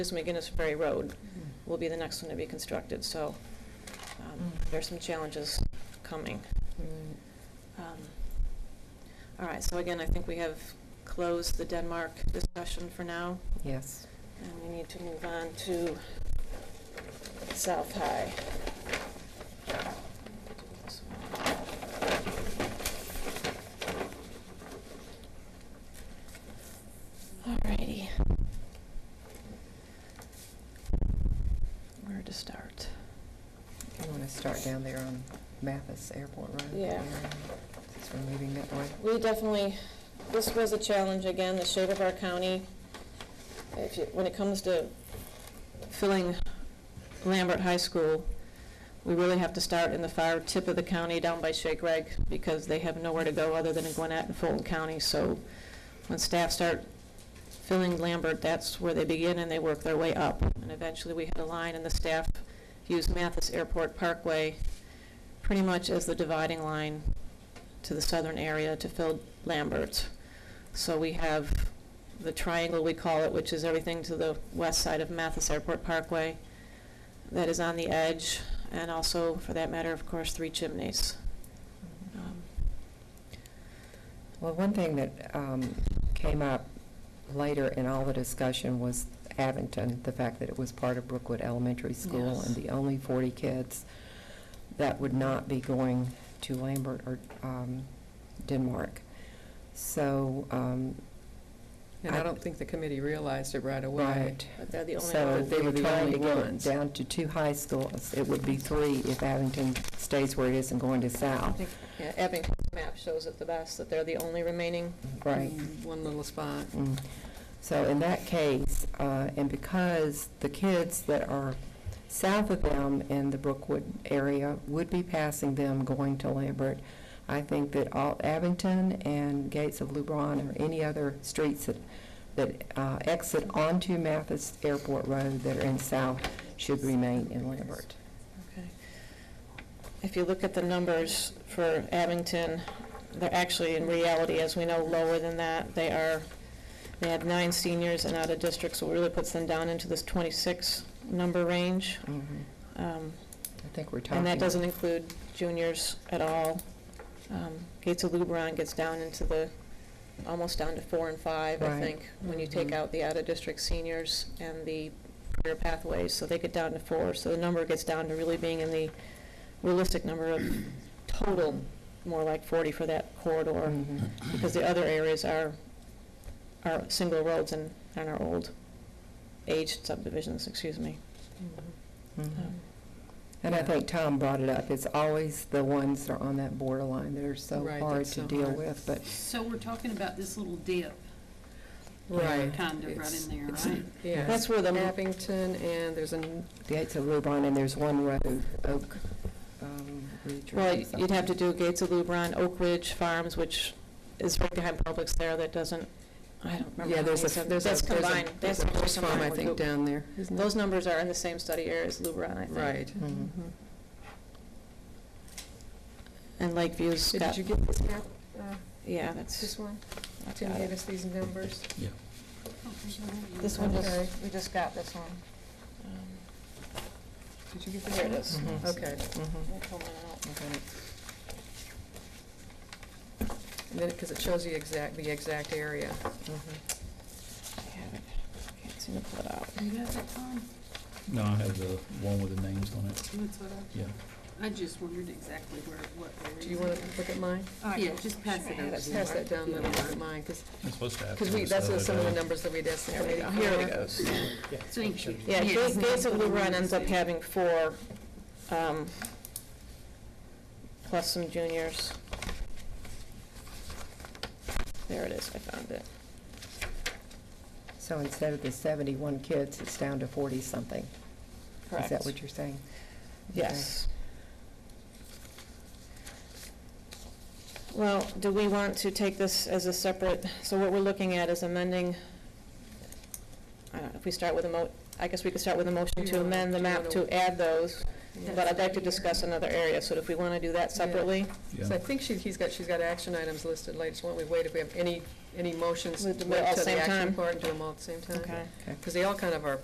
is McGinnis Ferry Road will be the next one to be constructed, so um, there's some challenges coming. Mm-hmm. Um, All right, so again, I think we have closed the Denmark discussion for now, Yes. and we need to move on to South High. All righty. Where to start? You want to start down there on Mathis Airport Road? that Yeah. area, Since we're moving that way. We definitely, this was a challenge, again, the shape of our county. If you, when it comes to filling Lambert High School, we really have to start in the far tip of the county down by Shake Rag because they have nowhere to go other than in Gwinnett and Fulton County. So when staff start filling Lambert, that's where they begin and they work their way up. And eventually, we had a line and the staff used Mathis Airport Parkway pretty much as the dividing line to the southern area to fill Lambert. So we have the triangle, we call it, which is everything to the west side of Mathis Airport Parkway that is on the edge, and also, for that matter, of course, Three Chimneys. Um, Well, one thing that um, came up later in all the discussion was Abington, the fact that it was part of Brookwood Elementary School Yes. and the only 40 kids that would not be going to Lambert or um, Denmark. So. um, And I don't think the committee realized it right away. Right. But they're the only So other, But they they were were the trying to only get it ones. down to two high schools. It would be three if Abington stays where it is and going to I South. think, yeah, Abington's map shows it the best, that they're the only remaining. Right. Mm, One little spot. Mm. So in that case, uh, and because the kids that are south of them in the Brookwood area would be passing them going to Lambert, I think that all Abington and Gates of Lubron or any other streets that, that uh, exit onto Mathis Airport Road that are in south should remain in Lambert. Okay. If you look at the numbers for Abington, they're actually, in reality, as we know, lower than that. They are, they have nine seniors and out of district, so it really puts them down into this 26 number range. Mhm. Um, I think we're talking. And that doesn't include juniors at all. Um, Gates of Luberon gets down into the, almost down to four and five, I Right. think, when you take Mhm. out the out-of-district seniors and the career pathways, so they get down to four. So the number gets down to really being in the realistic number of total, more like 40 for that corridor, Mhm. because the other areas are, are single roads and, and are old aged subdivisions, excuse me. Mhm. Um, And I Yeah. think Tom brought it up, it's always the ones that are on that borderline that are so Right, hard that's to so deal hard. with, but So we're talking about this little dip, Right. kind of, right It's- in there, it's- right? Yeah. That's where the- Abington, and there's an, Gates of Lubon, and there's one road, Oak um, Ridge. or Well, you'd something. have to do Gates of Lubron, Oak Ridge Farms, which is right behind Publix there, that doesn't, I don't remember. yeah, how there's many a, sub- there's a. That's there's a- combined, There's that's a horse combined. farm, I think, down there. isn't there? Those numbers are in the same study area as Lubron, I think. Right. Mhm. Mhm. And Lakeview's Did got, you get this map, uh, yeah, that's, this one? I've Tim got gave it. us these numbers. This one Okay. just, we just got this one. Um, Did you get this Here one? it is. Mhm. Okay. Mhm. Let me pull mine out. Okay. And then, because it shows the exact, the exact area. Mhm. I have it. Can't seem to pull it out. You got that, Tom? No, I have the one with the names on it, That's what yeah. I, I just wondered exactly where, what. area Do you is want it. to look at mine? Yeah, just pass Sure. it over. Let's pass that down, then I'll look at mine, because, It's supposed to have. because we, that's what some of the numbers that we asked the There we committee. go. Here for. it goes. Thank you. Yeah, Ga- Yes. Gates of Luberon ends up having four, um, plus some juniors. There it is, I found it. So instead of the 71 kids, it's down to 40-something. Is that what you're saying? Yes. Well, do we want to take this as a separate, so what we're looking at is amending, I don't know, if we start with a mo, I guess we could start with a motion You to wanna- amend the you map wanna- to add those, Yeah. but I'd like to discuss another area, so if we want to do that Yeah. separately, So I think she, he's got, she's got action items listed later, so why don't we wait if we have any, any motions, We'll wait do it all till same the action time. part and do them all at the same time? okay? Okay. Because they all kind of are